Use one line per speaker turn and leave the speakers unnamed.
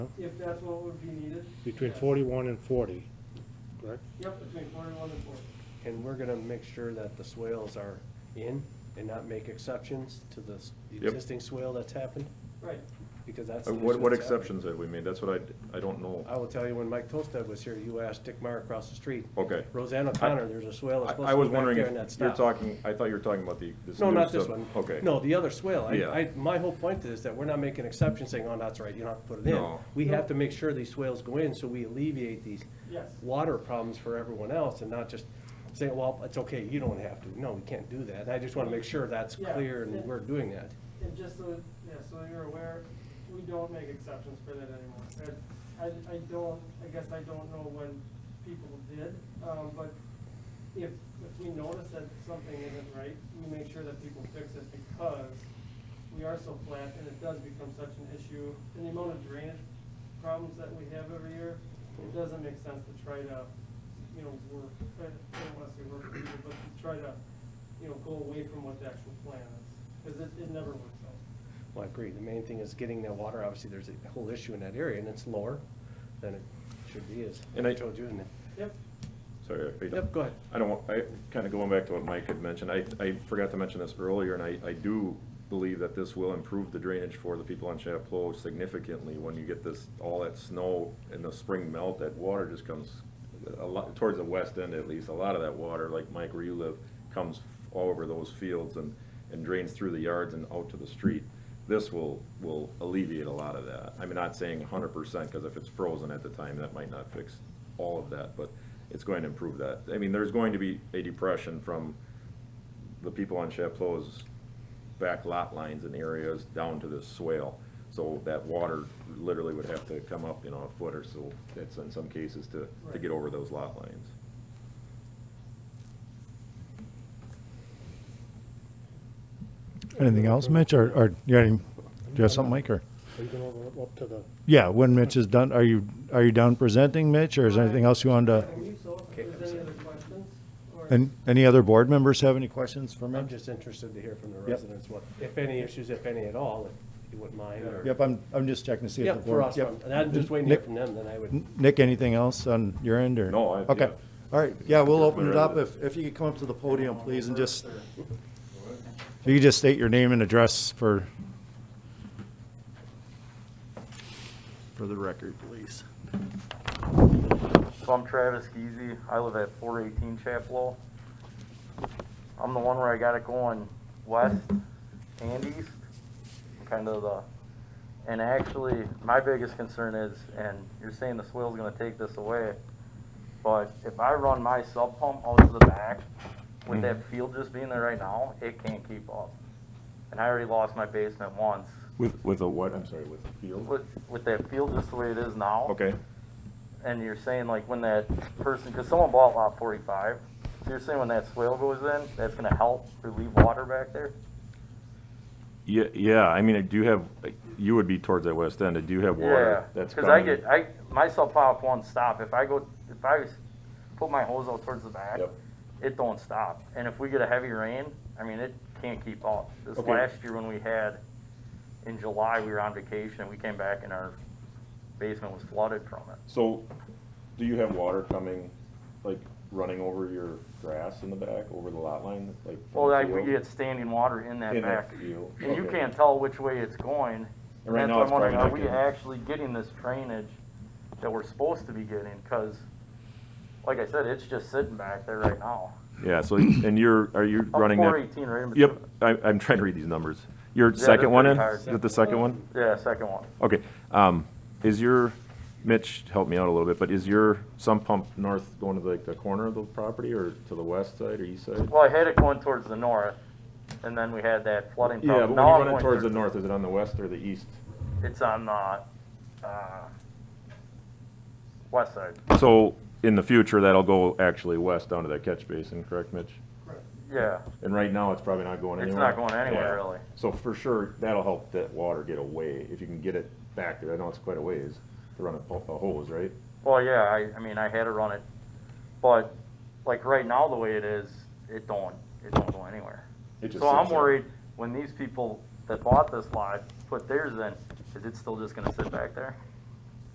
if that's what would be needed.
between forty-one and forty, correct?
Yep, between forty-one and forty.
And we're gonna make sure that the swales are in and not make exceptions to the s- the
Yep.
existing swale that's happened,
Right,
because that's.
Uh,
the
What,
issue
what
that's happened.
exceptions have we made? That's what I, I don't know.
I will tell you, when Mike Tolstad was here, you asked Dick Meyer across the street.
Okay.
Roseanne O'Connor, there's a swale that's
I
supposed
I
to
was
go back
wondering
there and that
if you're
stopped.
talking, I thought you were talking about the, this
No,
new stuff.
not this one.
Okay.
No, the other swale. I,
Yeah.
I, my whole point is that we're not making exceptions saying, oh, that's right, you don't have to put it in.
No.
We have to make sure these swales go in, so we alleviate these
yes.
water problems for everyone else and not just say, well, it's okay, you don't have to. No, we can't do that. And I just want to make sure that's
Yeah.
clear and we're doing that.
And just so, yeah, so you're aware, we don't make exceptions for that anymore. And I, I don't, I guess I don't know when people did, um, but if, if we notice that something isn't right, we make sure that people fix it because we are so flat and it does become such an issue. And the amount of drainage problems that we have every year, it doesn't make sense to try to, you know, work, I don't wanna say work, for you, but to try to, you know, go away from what the actual plan is, because it, it never works out.
Well, I agree. The main thing is getting that water. Obviously, there's a whole issue in that area and it's lower than it should be as
And I-
I told you. and-
Yep,
Sorry, are you done?
Yep, go ahead.
I don't want, I, kind of going back to what Mike had mentioned, I, I forgot to mention this earlier, and I, I do believe that this will improve the drainage for the people on Chapleau significantly when you get this, all that snow and the spring melt, that water just comes a lot, towards the west end at least, a lot of that water, like Mike where you live, comes all over those fields and, and drains through the yards and out to the street. This will, will alleviate a lot of that. I'm not saying hundred percent, because if it's frozen at the time, that might not fix all of that, but it's going to improve that. I mean, there's going to be a depression from the people on Chapleau's back lot lines and areas down to this swale. So that water literally would have to come up, you know, a foot or so, that's in some cases to, to
Right.
get over those lot lines.
Anything else, Mitch, or, or you got any, do you have something, Mike, or?
Are you going over up to the,
Yeah, when Mitch is done, are you, are you done presenting, Mitch, or is there anything else you wanted to?
I believe so,
Okay,
if
I'm
there's any
sorry.
other questions, or.
And any other board members have any questions for
I'm
Mitch?
just interested to hear from the residents what, if any issues, if any at all, if you wouldn't mind or.
Yep, I'm, I'm just checking to see if the
Yep, for
board.
us. I'm- And I'm just waiting to hear from them, then I would.
Nick, anything else on your end, or?
No, I-
Okay,
yeah.
all right, yeah, we'll open it up,
Right.
if, if you could come up to the podium, please, and just, if you could just state your name and address for,
For the record, please.
So I'm Travis Geezy. I live at 418 Chaplow. I'm the one where I got it going west and east, kind of the. And actually, my biggest concern is, and you're saying the swale's going to take this away, but if I run my sub pump out to the back, with that field just being there right now, it can't keep up. And I already lost my basement once.
With, with a what? I'm sorry, with a field?
With, with that field just the way it is now
Okay,
and you're saying like when that person, because someone bought lot forty-five, so you're saying when that swale goes in, that's gonna help relieve water back there?
yeah, yeah, I mean, I do have, you would be towards that west end, I do have
Yeah,
water that's
Cause I
coming.
get, I, myself pop one stop, if I go, if I s- put my hose out towards the back,
Yep.
it don't stop, and if we get a heavy rain, I mean, it can't keep up. This
Okay.
last year when we had, in July, we were on vacation, and we came back and our basement was flooded from it.
So, do you have water coming, like, running over your grass in the back, over the lot line, like? from
Well,
the
like, we
field?
get standing water in that
In that
back.
field,
And you
okay.
can't tell which way it's going.
And right
That's
now
why I'm
it's probably
wondering, are
not
we
getting-
actually getting this drainage that we're supposed to be getting? Cause, like I said, it's just sitting back there right now. Oh,
Yeah, so, and you're, are you running
Four
that?
eighteen right in between.
Yep, I, I'm trying to read these numbers. Your
they're
second one in,
pretty hard.
is it the second one?
Yeah, second one.
Okay, um, is your, Mitch, help me out a little bit, but is your sump pump north going to like the corner of the property or to the west side or east side?
Well, I had it going towards the north and then we had that flooding problem.
Yeah, but when
Now I'm
you run it
going
towards the
there.
north, is it on the west or the east?
It's on, uh, uh, west side.
So, in the future, that'll go actually west down to that catch basin, correct, Mitch?
Yeah,
And right now, it's probably not going
It's
anywhere.
not going anywhere,
Yeah.
really.
So for sure, that'll help that water get away, if you can get it back there. I know it's quite a ways to run a po- a hose, right?
Well, yeah, I, I mean, I had to run it, but like right now, the way it is, it don't, it don't go anywhere.
It just
So I'm
sits there.
worried when these people that bought this lot put theirs in, is it still just gonna sit back there?